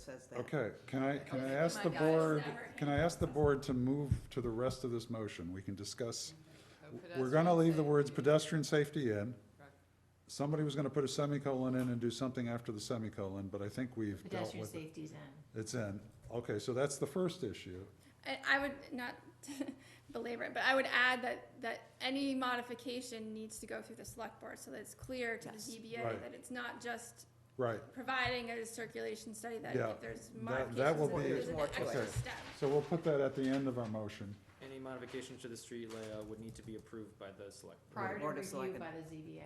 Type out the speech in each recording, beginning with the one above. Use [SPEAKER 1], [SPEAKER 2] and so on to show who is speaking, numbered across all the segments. [SPEAKER 1] says that.
[SPEAKER 2] Okay, can I, can
[SPEAKER 3] Oh
[SPEAKER 2] I ask the
[SPEAKER 4] My guys
[SPEAKER 2] board,
[SPEAKER 4] never-
[SPEAKER 2] can I ask the board to move to the rest of this motion? We can discuss,
[SPEAKER 4] Oh,
[SPEAKER 2] we're gonna
[SPEAKER 4] pedestrian
[SPEAKER 2] leave the
[SPEAKER 4] safety.
[SPEAKER 2] words pedestrian safety in.
[SPEAKER 4] Correct.
[SPEAKER 2] Somebody was gonna put a semicolon in and do something after the semicolon, but I think we've dealt
[SPEAKER 3] Pedestrian
[SPEAKER 2] with it.
[SPEAKER 3] safety's in.
[SPEAKER 2] It's in. Okay, so that's the first issue.
[SPEAKER 5] I, I would not belabor it, but I would add that, that any modification needs to go through the select board so that it's clear to the
[SPEAKER 3] Yes.
[SPEAKER 2] Right.
[SPEAKER 5] ZBA that it's not just
[SPEAKER 2] Right,
[SPEAKER 5] providing a circulation study that
[SPEAKER 2] Yeah,
[SPEAKER 5] if there's
[SPEAKER 2] that, that will
[SPEAKER 5] modifications,
[SPEAKER 1] Well,
[SPEAKER 2] be,
[SPEAKER 5] there's
[SPEAKER 1] There's
[SPEAKER 5] an
[SPEAKER 1] more to
[SPEAKER 5] extra
[SPEAKER 2] it.
[SPEAKER 5] step.
[SPEAKER 2] so we'll put that at the end of our motion.
[SPEAKER 6] Any modifications to the street layout would need to be approved by the select.
[SPEAKER 3] Prior to
[SPEAKER 1] Board of
[SPEAKER 3] review
[SPEAKER 1] Selectmen.
[SPEAKER 3] by the ZBA.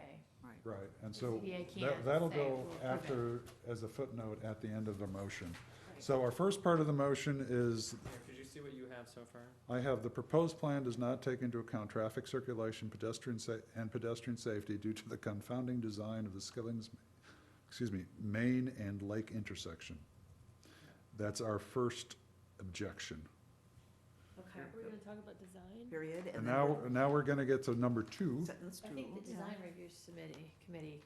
[SPEAKER 2] Right, and
[SPEAKER 3] The
[SPEAKER 2] so
[SPEAKER 3] ZBA
[SPEAKER 2] that,
[SPEAKER 3] can't
[SPEAKER 2] that'll
[SPEAKER 3] say
[SPEAKER 2] go
[SPEAKER 3] we'll approve it.
[SPEAKER 2] after, as a footnote at the end of the motion.
[SPEAKER 3] Right.
[SPEAKER 2] So our first part of the motion is,
[SPEAKER 6] Here, Could you see what you have so far?
[SPEAKER 2] I have, the proposed plan does not take into account traffic circulation, pedestrian sa- and pedestrian safety due to the confounding design of the Skilling's, excuse me, main and lake intersection. That's our first objection.
[SPEAKER 3] Okay.
[SPEAKER 7] We're gonna talk about design?
[SPEAKER 1] Period,
[SPEAKER 2] And
[SPEAKER 1] and
[SPEAKER 2] now,
[SPEAKER 1] then
[SPEAKER 2] now we're gonna get to number two.
[SPEAKER 1] sentence
[SPEAKER 3] I
[SPEAKER 1] two.
[SPEAKER 3] think the
[SPEAKER 1] Yeah.
[SPEAKER 3] design review submittee, committee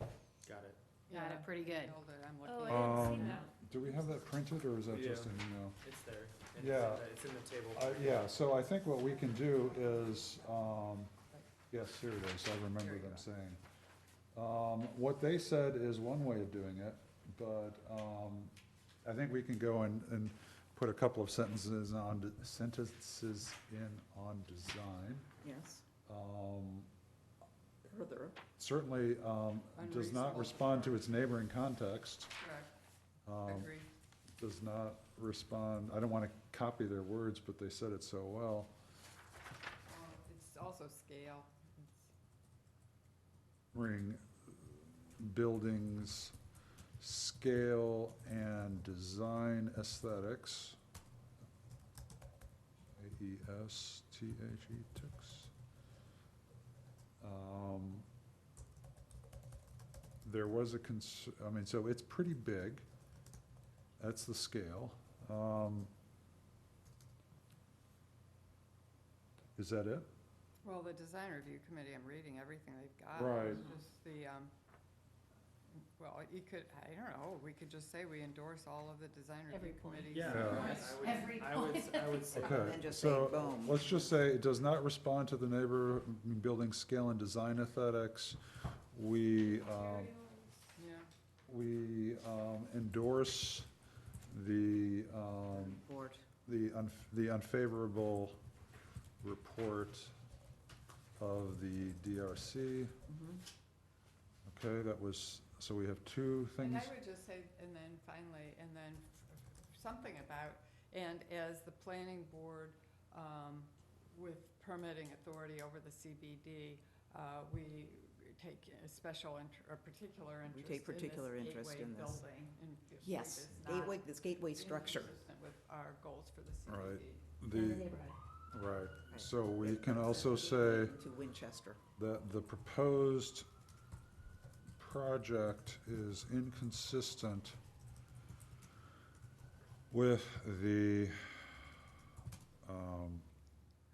[SPEAKER 6] Got it.
[SPEAKER 3] got it pretty good.
[SPEAKER 4] Hold it, I'm
[SPEAKER 7] Oh,
[SPEAKER 4] looking.
[SPEAKER 7] I
[SPEAKER 2] Um,
[SPEAKER 7] didn't see that.
[SPEAKER 2] Do we have that printed, or is that just
[SPEAKER 6] Yeah.
[SPEAKER 2] an email?
[SPEAKER 6] It's there. It's in
[SPEAKER 2] Yeah.
[SPEAKER 6] the- It's in the table.
[SPEAKER 2] Uh, yeah, so I think what we can do is, um, yes, here it is, I remember them saying. Um, what they said is one way of doing it, but, um, I think we can go and, and put a couple of sentences on, de- sentences in on design.
[SPEAKER 1] Yes,
[SPEAKER 2] Um,
[SPEAKER 1] further,
[SPEAKER 2] certainly, um, does not
[SPEAKER 4] Unreasonable.
[SPEAKER 2] respond to its neighboring context,
[SPEAKER 4] Correct,
[SPEAKER 2] um,
[SPEAKER 4] agree.
[SPEAKER 2] does not respond, I don't wanna copy their words, but they said it so well.
[SPEAKER 4] Well, It's also scale.
[SPEAKER 2] ring buildings, scale and design aesthetics. E A-E-S-T-H-E, ticks. Um, There was a cons, I mean, so it's pretty big. That's the scale. Um, Is that it?
[SPEAKER 4] Well, the design review committee, I'm reading everything they've got.
[SPEAKER 2] Right.
[SPEAKER 4] It's Just the, um, well, you could, I don't know, we could just say we endorse all of the design
[SPEAKER 3] Every
[SPEAKER 4] review
[SPEAKER 3] point.
[SPEAKER 4] committees.
[SPEAKER 6] Yeah.
[SPEAKER 2] Yeah.
[SPEAKER 6] I would-
[SPEAKER 3] Every
[SPEAKER 6] I would,
[SPEAKER 3] point.
[SPEAKER 6] I would say.
[SPEAKER 2] Okay.
[SPEAKER 1] and then just say
[SPEAKER 2] Uh, so
[SPEAKER 1] boom.
[SPEAKER 2] Let's just say it does not respond to the neighbor, building scale and design aesthetics. We, um,
[SPEAKER 4] Yeah,
[SPEAKER 2] we um, endorse the, um,
[SPEAKER 1] Board,
[SPEAKER 2] the un, the unfavorable report of the DRC.
[SPEAKER 1] mhm.
[SPEAKER 2] Okay, that was, so we have two
[SPEAKER 4] and
[SPEAKER 2] things.
[SPEAKER 4] I would just say, and then finally, and then f- something about, and as the planning board, um, with permitting authority over the CBD, uh, we take a special inter, a particular
[SPEAKER 1] We
[SPEAKER 4] interest
[SPEAKER 1] take particular
[SPEAKER 4] in this
[SPEAKER 1] interest
[SPEAKER 4] gateway
[SPEAKER 1] in this.
[SPEAKER 4] building, and if it
[SPEAKER 1] Yes,
[SPEAKER 4] is not
[SPEAKER 1] gateway, this gateway structure.
[SPEAKER 4] Inconsistent with our goals for the
[SPEAKER 2] Right.
[SPEAKER 4] CBD.
[SPEAKER 3] In
[SPEAKER 2] The,
[SPEAKER 3] the neighborhood.
[SPEAKER 2] right, so we can also say.
[SPEAKER 1] To Winchester.
[SPEAKER 2] that the proposed project is inconsistent with the, um,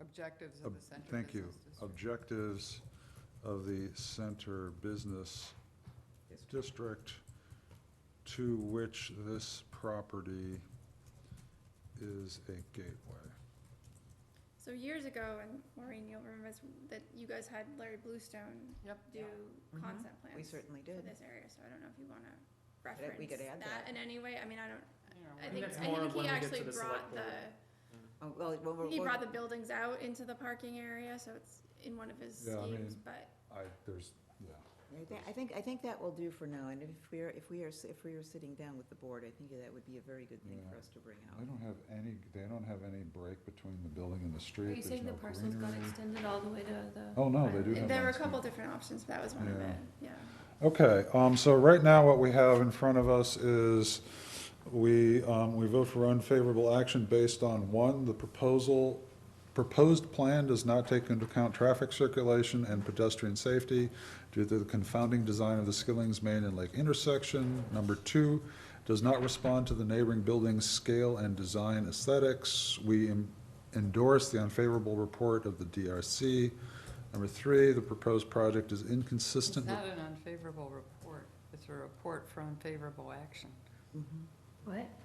[SPEAKER 4] Objectives
[SPEAKER 2] Ob-
[SPEAKER 4] of the Center
[SPEAKER 2] thank you,
[SPEAKER 4] Business District.
[SPEAKER 2] objectives of the center business district to which this property is a gateway.
[SPEAKER 5] So years ago, and Maureen, you'll remember this, that you guys had Larry Bluestone
[SPEAKER 4] Yep.
[SPEAKER 5] do
[SPEAKER 1] Mhm.
[SPEAKER 5] concept
[SPEAKER 1] We
[SPEAKER 5] plans
[SPEAKER 1] certainly
[SPEAKER 5] for
[SPEAKER 1] did.
[SPEAKER 5] this area, so I don't know if you wanna
[SPEAKER 1] I think
[SPEAKER 5] reference
[SPEAKER 1] we could add
[SPEAKER 5] that
[SPEAKER 1] that.
[SPEAKER 5] in any way, I mean, I don't,
[SPEAKER 4] You know,
[SPEAKER 5] I
[SPEAKER 6] think
[SPEAKER 5] think,
[SPEAKER 6] that's
[SPEAKER 5] I
[SPEAKER 6] more
[SPEAKER 5] think
[SPEAKER 6] when we
[SPEAKER 5] he
[SPEAKER 6] get to
[SPEAKER 5] actually
[SPEAKER 6] the
[SPEAKER 5] brought
[SPEAKER 6] select
[SPEAKER 5] the,
[SPEAKER 6] board.
[SPEAKER 1] Oh, well, when
[SPEAKER 5] I
[SPEAKER 1] we're-
[SPEAKER 5] think he
[SPEAKER 1] when-
[SPEAKER 5] brought the buildings out into the parking area, so it's in one of his
[SPEAKER 2] Yeah, I
[SPEAKER 5] schemes,
[SPEAKER 2] mean-
[SPEAKER 5] but
[SPEAKER 2] I, there's, yeah,
[SPEAKER 1] I thi- I think, I think that will do for now, and if we are, if we are, s- if we are sitting down with the board, I think that would be a very good thing for
[SPEAKER 2] Yeah.
[SPEAKER 1] us to bring
[SPEAKER 2] they
[SPEAKER 1] out.
[SPEAKER 2] don't have any, they don't have any break between the building and the
[SPEAKER 7] Are
[SPEAKER 2] street.
[SPEAKER 7] you
[SPEAKER 2] There's
[SPEAKER 7] saying the
[SPEAKER 2] no
[SPEAKER 7] parcels got
[SPEAKER 2] greenery.
[SPEAKER 7] extended all the way to the?
[SPEAKER 2] Oh, no, they do have.
[SPEAKER 5] there were a
[SPEAKER 2] landscape.
[SPEAKER 5] couple different options, but that was one of
[SPEAKER 2] Yeah.
[SPEAKER 5] it, yeah.
[SPEAKER 2] Okay, um, so right now what we have in front of us is we, um, we vote for unfavorable action based on, one, the proposal, proposed plan does not take into account traffic circulation and pedestrian safety due to the confounding design of the Skilling's Main and Lake intersection. Number two, does not respond to the neighboring building's scale and design aesthetics. We em- endorse the unfavorable report of the DRC. Number three, the proposed project is
[SPEAKER 4] It's
[SPEAKER 2] inconsistent with
[SPEAKER 4] not an unfavorable report, it's a report for unfavorable action.
[SPEAKER 1] Mhm.
[SPEAKER 3] What?